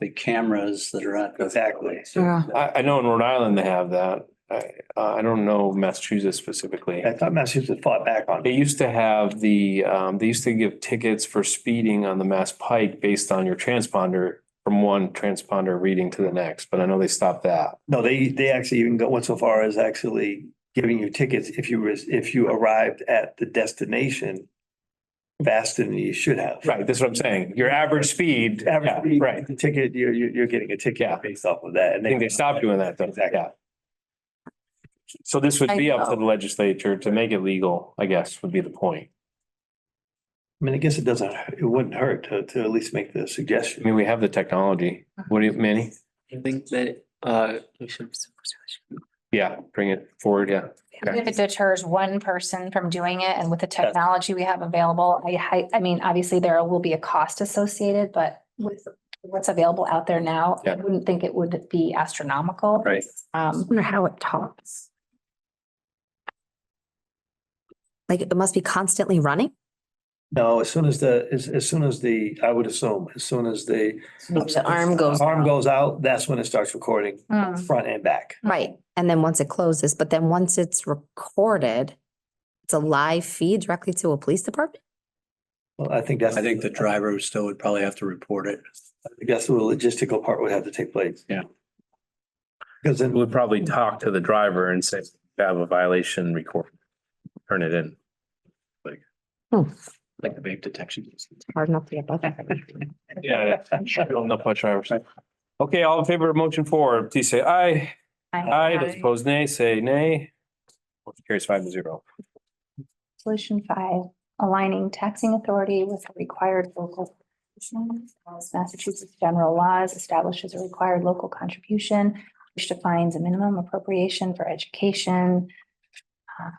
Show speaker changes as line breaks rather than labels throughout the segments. the cameras that are on.
Exactly.
Yeah.
I, I know in Rhode Island they have that. I, uh, I don't know Massachusetts specifically.
I thought Massachusetts fought back on
They
it.
used to have the, um, they used to give tickets for speeding on the Mass Pike based on your transponder from one transponder reading to the next, but I know they stopped that.
No, they, they actually even got, went so far as actually giving you tickets if you was, if you arrived at the destination faster than you should have.
Right, that's what I'm saying. Your average speed. yeah,
Average,
Right.
right, the ticket, you're, you're, you're getting a
Yeah.
ticket based off of that. and
I think they stopped doing that though.
Exactly.
Yeah. So this would be up to the legislature to make it legal, I guess, would be the point.
I mean, I guess it doesn't, it wouldn't hurt to, to at least make the
I
suggestion.
mean, we have the technology. What do you, Manny?
I think that, uh, we should.
Yeah, bring it forward, yeah. Okay.
If it deters one person from doing it and with the technology we have available, I, hi- I mean, obviously there will be a cost associated, but with what's available out there now,
Yeah.
I wouldn't think it would be astronomical.
Right.
I
Um,
wonder how it tops. Like it must be constantly running?
No, as soon as the, as, as soon as the, I would assume, as soon as the
The arm goes.
arm
out. Uh-huh.
goes out, that's when it starts recording
mm,
front and back.
Right, and then once it closes, but then once it's recorded, it's a live feed directly to a police department?
Well, I think that's.
I think the driver still would probably have to report it.
I think That's where the logistical part would have to take place.
Yeah.
Because then,
would probably talk to the driver and say, "You have a violation, record, turn it in. Like.
Hmm.
Like the vape detection.
Hard enough to get both. Aye.
Yeah, yeah. no punch drivers. Okay, all in favor of motion four, please say aye. Aye, those opposed nay, say nay. Motion carries five to zero.
Solution five, aligning taxing authority with the required local. contributions. As Massachusetts general laws establishes a required local contribution, which defines a minimum appropriation for education. Uh,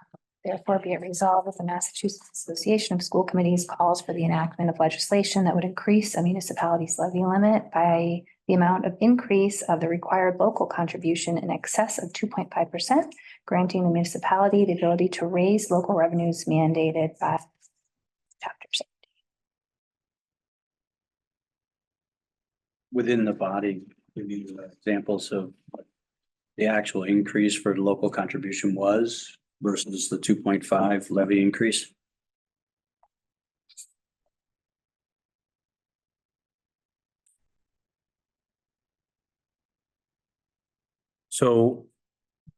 Therefore, be it resolved that the Massachusetts Association of School Committees calls for the enactment of legislation that would increase a municipality's levy limit by the amount of increase of the required local contribution in excess of two point five percent granting the municipality the ability to raise local revenues mandated by chapter six.
Within the body, we need examples of what the actual increase for local contribution was versus the two point five levy increase.
So,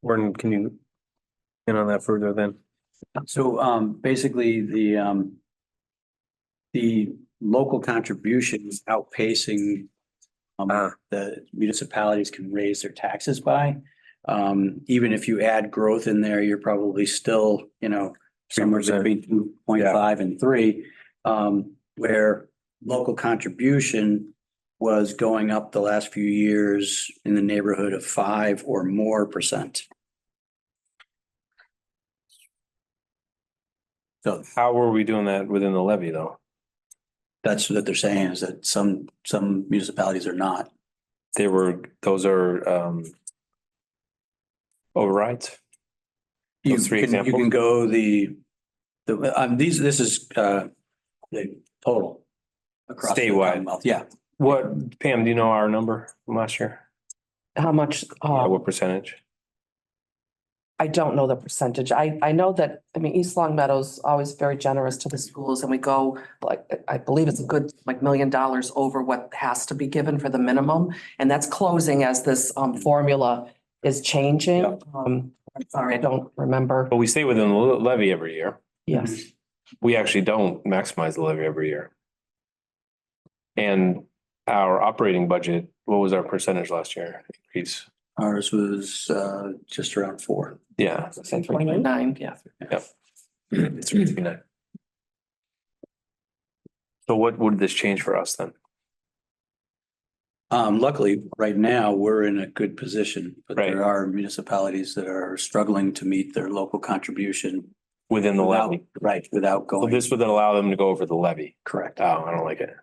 Gordon, can you in on that further then?
So um basically the um. The local contributions outpacing.
Ah.
Um the municipalities can raise their taxes by. Um even if you add growth in there, you're probably still, you know, somewhere
3%.
between two point five and three. Um where local contribution was going up the last few years in the neighborhood of five or more percent. So
How were we doing that within the levy though?
That's what they're saying is that some, some municipalities are not.
They were, those are, um, overrides.
You
Those three
can, you
examples?
can go the, the, um, these, this is, uh, the total. across the
Statewide.
Commonwealth. Yeah,
What, Pam, do you know our number from last year?
how much,
Yeah,
uh,
What percentage?
I don't know the percentage. I, I know that, I mean, East Long Meadow's always very generous to the schools and we go like, I believe it's a good, like million dollars over what has to be given for the minimum. And that's closing as this, um, formula is changing.
Yeah.
Um, I'm sorry, I don't remember.
But we stay within the le- levy every year.
Yes.
we actually don't maximize the levy every year. And our operating budget, what was our percentage last year increase?
ours was, uh, just around four.
Yeah.
Nine, yeah.
It's 39. So what would this change for us then?
Um, luckily, right now, we're in a good position, but
Right.
there are municipalities that are struggling to meet their local contribution.
Within the
without-
levy?
Right, without
So
going,
this would then allow them to go over the levy.
correct.
Oh, I don't like it.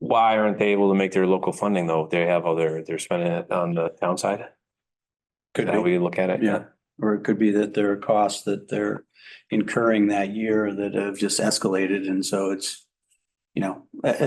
Why aren't they able to make their local funding though? They have other, they're spending it on the town side?
Could
How
be.
we look at it?
Yeah, or it could be that there are costs that they're incurring that year that have just escalated, and so it's you know, a-